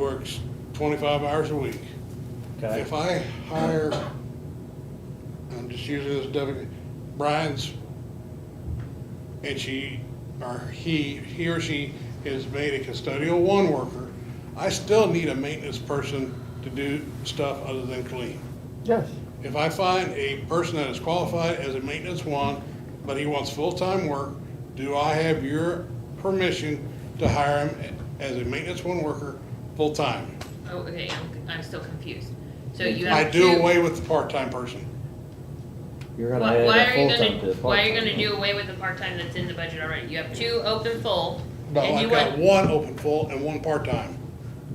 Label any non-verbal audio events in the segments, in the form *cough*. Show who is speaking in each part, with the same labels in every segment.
Speaker 1: works twenty-five hours a week.
Speaker 2: okay?
Speaker 1: If I hire, I'm just using this W, Brian's, and she, or he, he or she is made a custodial one worker, I still need a maintenance person to do stuff other than clean.
Speaker 3: Yes.
Speaker 1: If I find a person that is qualified as a maintenance one, but he wants full-time work, do I have your permission to hire him as a maintenance one worker, full-time?
Speaker 4: Oh, okay, I'm, I'm still confused. So you
Speaker 1: I
Speaker 4: have two.
Speaker 1: do away with the part-time person.
Speaker 2: You're gonna
Speaker 4: Why,
Speaker 2: add
Speaker 4: why
Speaker 2: a
Speaker 4: are you
Speaker 2: full-time to
Speaker 4: gonna,
Speaker 2: the
Speaker 4: why are you
Speaker 2: part-time.
Speaker 4: gonna do away with the part-time that's in the budget already? You have two open full,
Speaker 1: No,
Speaker 4: and you
Speaker 1: I've got one
Speaker 4: want,
Speaker 1: open full and one part-time.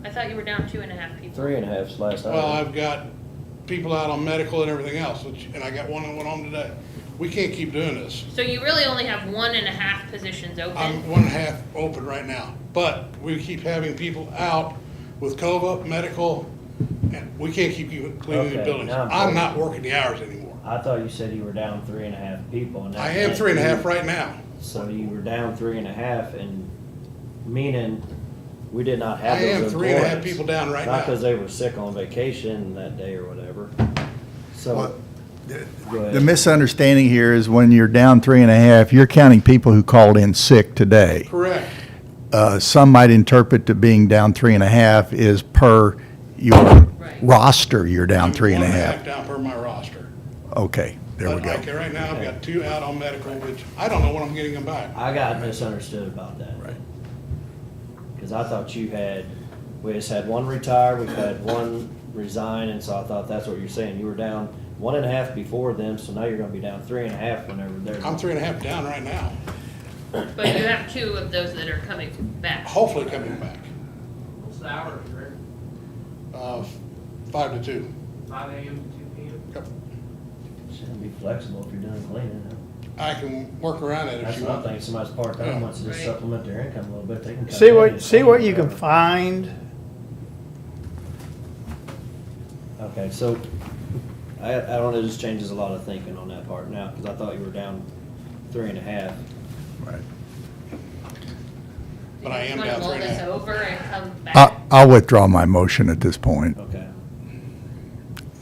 Speaker 4: I thought you were down two and a half people.
Speaker 2: Three and a half's last
Speaker 1: Well,
Speaker 2: item.
Speaker 1: I've got people out on medical and everything else, which- and I got one that went home today. We can't keep doing this.
Speaker 4: So you really only have one and a half positions open?
Speaker 1: I'm one half open right now, but we keep having people out with COVA, medical, and we can't keep you cleaning the
Speaker 2: Okay,
Speaker 1: buildings.
Speaker 2: now I'm
Speaker 1: I'm
Speaker 2: following.
Speaker 1: not working the hours anymore.
Speaker 2: I thought you said you were down three and a half people and. that
Speaker 1: I am
Speaker 2: meant
Speaker 1: three and a
Speaker 2: you-
Speaker 1: half right now.
Speaker 2: So you were down three and a half and meaning we did not have
Speaker 1: I am
Speaker 2: those employees.
Speaker 1: three and a half people down right
Speaker 2: Not because
Speaker 1: now.
Speaker 2: they were sick on vacation that day or whatever.
Speaker 5: Well,
Speaker 2: So, go
Speaker 5: The
Speaker 2: ahead.
Speaker 5: misunderstanding here is when you're down three and a half, you're counting people who called in sick today.
Speaker 1: Correct.
Speaker 5: Uh, Some might interpret to being down three and a half is per your
Speaker 4: Right.
Speaker 5: roster, you're down
Speaker 1: I'm
Speaker 5: three and a
Speaker 1: one
Speaker 5: half.
Speaker 1: Down per my roster.
Speaker 5: Okay, there we
Speaker 1: But
Speaker 5: go.
Speaker 1: like right now, I've got two out on medical, which I don't know when I'm getting them back.
Speaker 2: I got misunderstood about that.
Speaker 5: Right.
Speaker 2: Cause I thought you had, we just had one retire, we've had one resign, and so I thought that's what you're saying. You were down one and a half before them, so now you're gonna be down three and a half whenever they're.
Speaker 1: I'm three and a half down right now, Um,
Speaker 4: But you have two of those that are coming back.
Speaker 1: hopefully coming back,
Speaker 6: What's the hour, Rick?
Speaker 1: uh, five to two.
Speaker 6: Five AM to two PM?
Speaker 2: Shouldn't be flexible if you're done cleaning. huh?
Speaker 1: I can work around it if
Speaker 2: That's
Speaker 1: you
Speaker 2: one
Speaker 1: want.
Speaker 2: thing, somebody's part-time wants to just
Speaker 4: Right.
Speaker 2: supplement their income a little bit, they can. come
Speaker 3: See
Speaker 2: in and
Speaker 3: what, see
Speaker 2: clean
Speaker 3: what you can
Speaker 2: whatever.
Speaker 3: find.
Speaker 2: Okay, so, I, I don't know, this changes a lot of thinking on that part now, cause I thought you were down three and a half.
Speaker 5: Right.
Speaker 1: But I am
Speaker 4: Wanna
Speaker 1: down three and a
Speaker 4: roll this
Speaker 1: half.
Speaker 4: over and come
Speaker 5: I-
Speaker 4: back?
Speaker 5: I'll withdraw my motion at this point.
Speaker 2: Okay.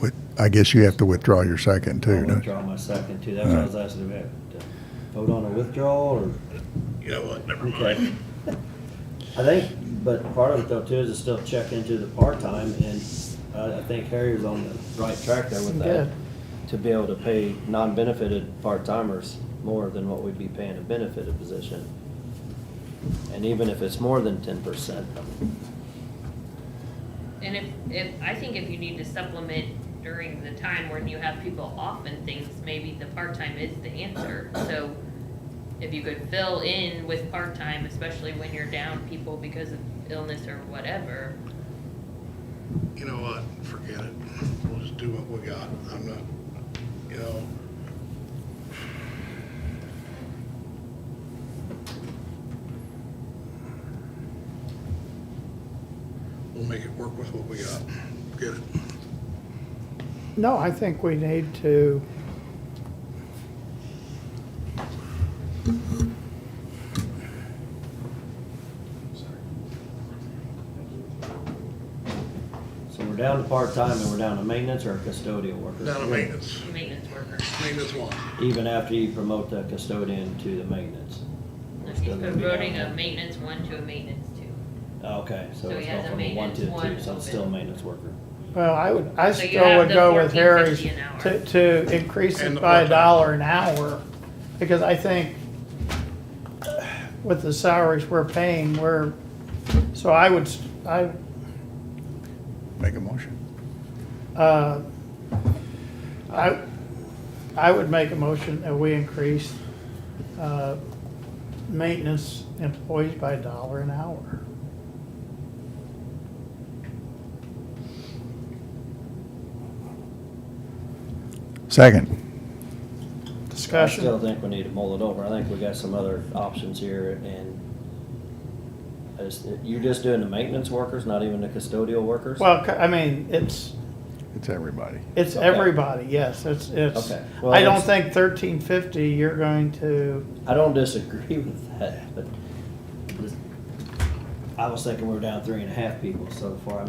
Speaker 5: With- I guess you have to withdraw your second
Speaker 2: I'll
Speaker 5: too, don't you?
Speaker 2: Withdraw my second too, that's what I was asking about. Uh, Vote on a withdrawal or?
Speaker 1: You know what, never
Speaker 2: Okay. *laughs* I think, but part of it though too is to still check into the part-time and I, I think Harry's on the right track there with that.
Speaker 3: Good.
Speaker 2: To be able to pay non-benefited part-timers more than what we'd be paying a benefited position. And even if it's more than ten percent,
Speaker 4: And if, if, I think if you need to supplement during the time when you have people off and things, maybe the part-time is the answer. So if you could fill in with part-time, especially when you're down people because of illness or whatever.
Speaker 1: You know what, forget it. We'll just do what we got. I'm not, you know, we'll make it work with what we got. Get it.
Speaker 3: No, I think we need to,
Speaker 2: so we're down to part-time and we're down to maintenance or custodial worker.
Speaker 1: Down to maintenance,
Speaker 4: Maintenance worker.
Speaker 1: maintenance one.
Speaker 2: Even after you promote the custodian to the maintenance. We're
Speaker 4: He's
Speaker 2: still gonna be down
Speaker 4: promoting
Speaker 2: there.
Speaker 4: a maintenance one to a maintenance two.
Speaker 2: Uh, Okay, so
Speaker 4: So
Speaker 2: it's
Speaker 4: he
Speaker 2: going
Speaker 4: has a
Speaker 2: from a one to a
Speaker 4: maintenance
Speaker 2: two, so
Speaker 4: one
Speaker 2: it's still a
Speaker 4: open.
Speaker 2: maintenance worker.
Speaker 3: well, I would, I
Speaker 4: So you
Speaker 3: still
Speaker 4: have
Speaker 3: would
Speaker 4: the
Speaker 3: go with
Speaker 4: 14.50
Speaker 3: Harry's
Speaker 4: an hour.
Speaker 3: to, to increase
Speaker 1: And
Speaker 3: it
Speaker 1: the
Speaker 3: by a
Speaker 1: part-time.
Speaker 3: dollar an hour. Because I think with the salaries we're paying, we're, so I would, s- I,
Speaker 5: Make a motion.
Speaker 3: uh, I, I would make a motion that we increase, uh, maintenance employees by a dollar an hour.
Speaker 5: Second.
Speaker 2: I
Speaker 3: Discussion.
Speaker 2: still think we need to mull it over. I think we got some other options here and I just- you're just doing the maintenance workers, not even the custodial workers?
Speaker 3: Well, c- I mean, it's,
Speaker 5: It's everybody.
Speaker 3: it's
Speaker 2: Okay.
Speaker 3: everybody, yes, it's, it's,
Speaker 2: Okay. Well,
Speaker 3: I don't
Speaker 2: it's-
Speaker 3: think thirteen fifty, you're going to,
Speaker 2: *laughs* I don't disagree with that, but this- I was thinking we were down three and a half people, so before I